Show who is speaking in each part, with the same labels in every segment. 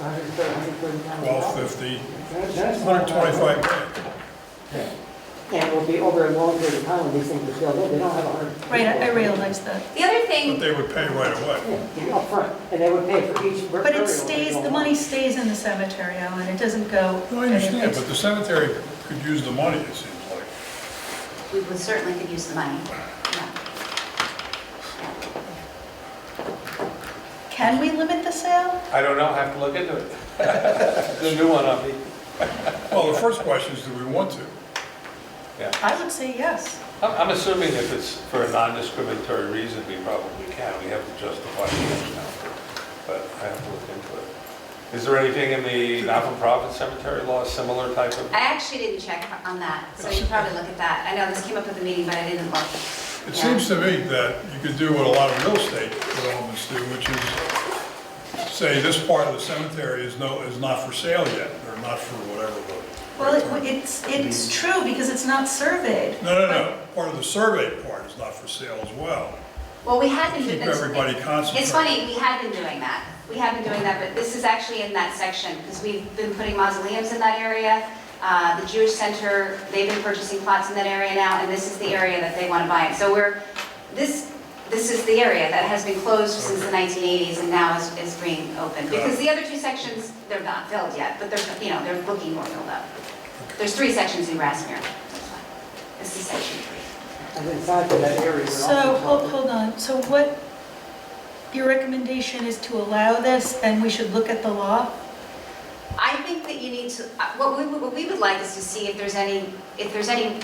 Speaker 1: hundred and thirty, hundred and thirty thousand
Speaker 2: twelve
Speaker 1: dollars.
Speaker 2: fifty,
Speaker 1: That- that's
Speaker 2: hundred
Speaker 1: not bad.
Speaker 2: twenty-five grand.
Speaker 1: And it will be over a long period of time when these things are filled in, they don't have a hundred.
Speaker 3: Right, I I realize that.
Speaker 4: The other
Speaker 2: But
Speaker 4: thing,
Speaker 2: they would pay right away.
Speaker 1: Yeah, up front, and they would pay for each. bur-
Speaker 3: But
Speaker 1: burial
Speaker 3: it
Speaker 1: they
Speaker 3: stays,
Speaker 1: go
Speaker 3: the
Speaker 1: on.
Speaker 3: money stays in the cemetery, Alan, it doesn't go.
Speaker 2: No, I understand, but the cemetery could use the money, it seems like.
Speaker 4: we would certainly could use the money. Yeah.
Speaker 3: Can we limit the sale?
Speaker 5: I don't know, I have to look into it. The new one, I'll be,
Speaker 2: Well, the first question is, do we want to?
Speaker 5: yeah.
Speaker 3: I would say yes.
Speaker 5: I'm I'm assuming if it's for a non-discriminatory reason, we probably can, we have to justify it now, but I have to look into it. Is there anything in the not-for-profit cemetery law, similar type of?
Speaker 4: I actually didn't check on that, so you should probably look at that. I know this came up at the meeting, but I didn't look.
Speaker 2: It seems to me that you could do what a lot of real estate developments do, which is say this part of the cemetery is no, is not for sale yet, or not for whatever the.
Speaker 3: Well, it- it's, it's true because it's not surveyed.
Speaker 2: No, no, no, part of the survey part is not for sale as well.
Speaker 4: Well, we had been.
Speaker 2: Keep
Speaker 4: it's-
Speaker 2: everybody
Speaker 4: It's
Speaker 2: concentrated.
Speaker 4: funny, we had been doing that. We had been doing that, but this is actually in that section, because we've been putting mausoleums in that area. Uh, The Jewish Center, they've been purchasing plots in that area now, and this is the area that they want to buy it. So we're, this, this is the area that has been closed since the 1980s and now is, is being opened.
Speaker 2: Got it.
Speaker 4: Because the other two sections, they're not filled yet, but they're, you know, they're looking more filled up. There's three sections in Grassmere. This is section three.
Speaker 1: And inside of that area. we're
Speaker 3: So,
Speaker 1: also
Speaker 3: hold,
Speaker 1: talking-
Speaker 3: hold on, so what, your recommendation is to allow this and we should look at the law?
Speaker 4: I think that you need to, uh, what we, what we would like is to see if there's any, if there's any,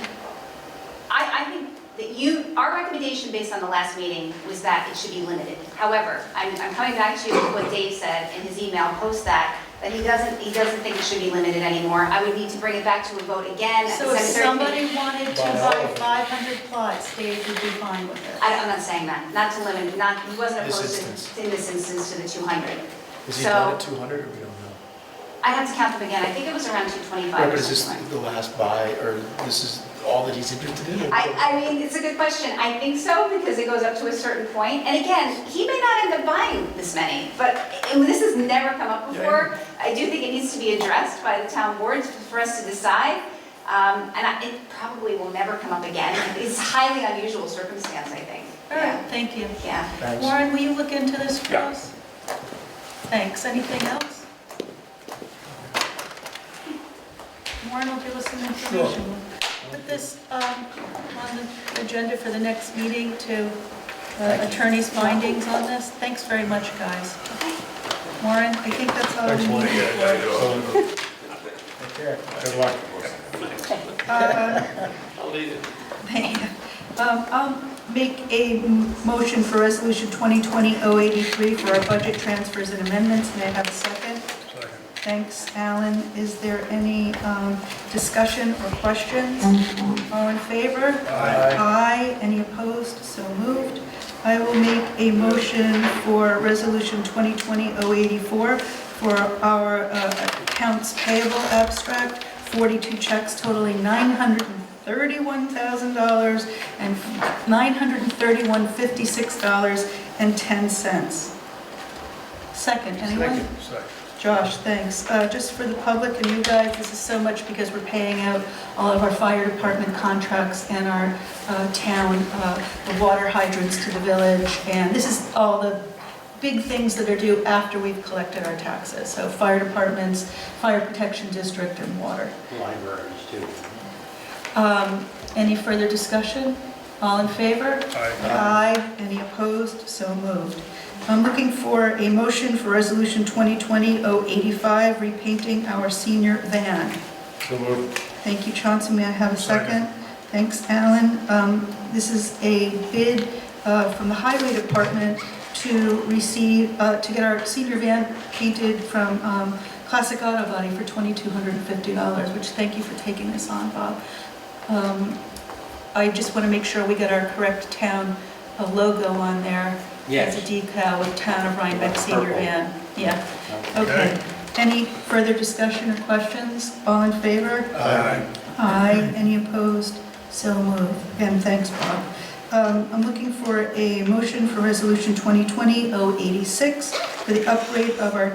Speaker 4: I, I think that you, our recommendation based on the last meeting was that it should be limited. However, I'm, I'm coming back to what Dave said in his email, post that, that he doesn't, he doesn't think it should be limited anymore. I would need to bring it back to a vote again at
Speaker 3: So
Speaker 4: the
Speaker 3: if
Speaker 4: cemetery committee.
Speaker 3: somebody wanted to buy 500 plots, they would be fine with it.
Speaker 4: I- I'm not saying that, not to limit, not, he wasn't
Speaker 6: This
Speaker 4: opposed
Speaker 6: instance.
Speaker 4: to- in this instance to the 200.
Speaker 6: Is he
Speaker 4: So-
Speaker 6: down at 200 or we don't know?
Speaker 4: I'd have to count them again, I think it was around 225
Speaker 6: Right,
Speaker 4: or
Speaker 6: but is this
Speaker 4: something like that.
Speaker 6: the last buy or this is all that he's interested in? or-
Speaker 4: I, I mean, it's a good question. I think so, because it goes up to a certain point. And again, he may not end up buying this many, but and this has never come up before. I do think it needs to be addressed by the town boards for us to decide. Um, And I- it probably will never come up again. It's highly unusual circumstance, I think.
Speaker 3: All right, thank you.
Speaker 4: Yeah.
Speaker 6: Thanks.
Speaker 3: Warren, will you look into this for
Speaker 5: Yeah.
Speaker 3: us? Thanks, anything else? Warren will give us some information. Put this um, on the agenda for the next meeting to uh, attorney's findings on this. Thanks very much, guys. Warren, I think that's all we need for.
Speaker 5: Good luck.
Speaker 3: Thank you. Um, I'll make a m- motion for Resolution 2020-083 for our budget transfers and amendments. May I have a second?
Speaker 2: Second.
Speaker 3: Thanks, Alan. Is there any um, discussion or questions? All in favor? Aye. Any opposed? So moved. I will make a motion for Resolution 2020-084 for our uh, accounts payable abstract, 42 checks totaling $931,000 and $931.56.10. Second, anyone?
Speaker 2: Second. Second.
Speaker 3: Josh, thanks. Uh, Just for the public and you guys, this is so much because we're paying out all of our fire department contracts and our uh, town, uh, the water hydrants to the village. And this is all the big things that are due after we've collected our taxes. So fire departments, fire protection district, and water.
Speaker 5: Libraries too.
Speaker 3: Um, Any further discussion? All in favor?
Speaker 2: Aye.
Speaker 3: Aye. Any opposed? So moved. I'm looking for a motion for Resolution 2020-085, repainting our senior van.
Speaker 5: So moved.
Speaker 3: Thank you, Chauncey. May I have a second?
Speaker 2: Second.
Speaker 3: Thanks, Alan. Um, This is a bid uh, from the Highway Department to receive, uh, to get our senior van painted from um, Classic Auto Body for $2,250, which, thank you for taking this on, Bob. Um, I just want to make sure we get our correct town uh, logo on there.
Speaker 6: Yes.
Speaker 3: As a decal with Town of Rhinebeck Senior
Speaker 6: Purple.
Speaker 3: Van. Yeah,
Speaker 2: Okay.
Speaker 3: okay. Any further discussion or questions? All in favor?
Speaker 2: Aye.
Speaker 3: Aye. Any opposed? So moved. And thanks, Bob. Um, I'm looking for a motion for Resolution 2020-086 for oh the upgrade of our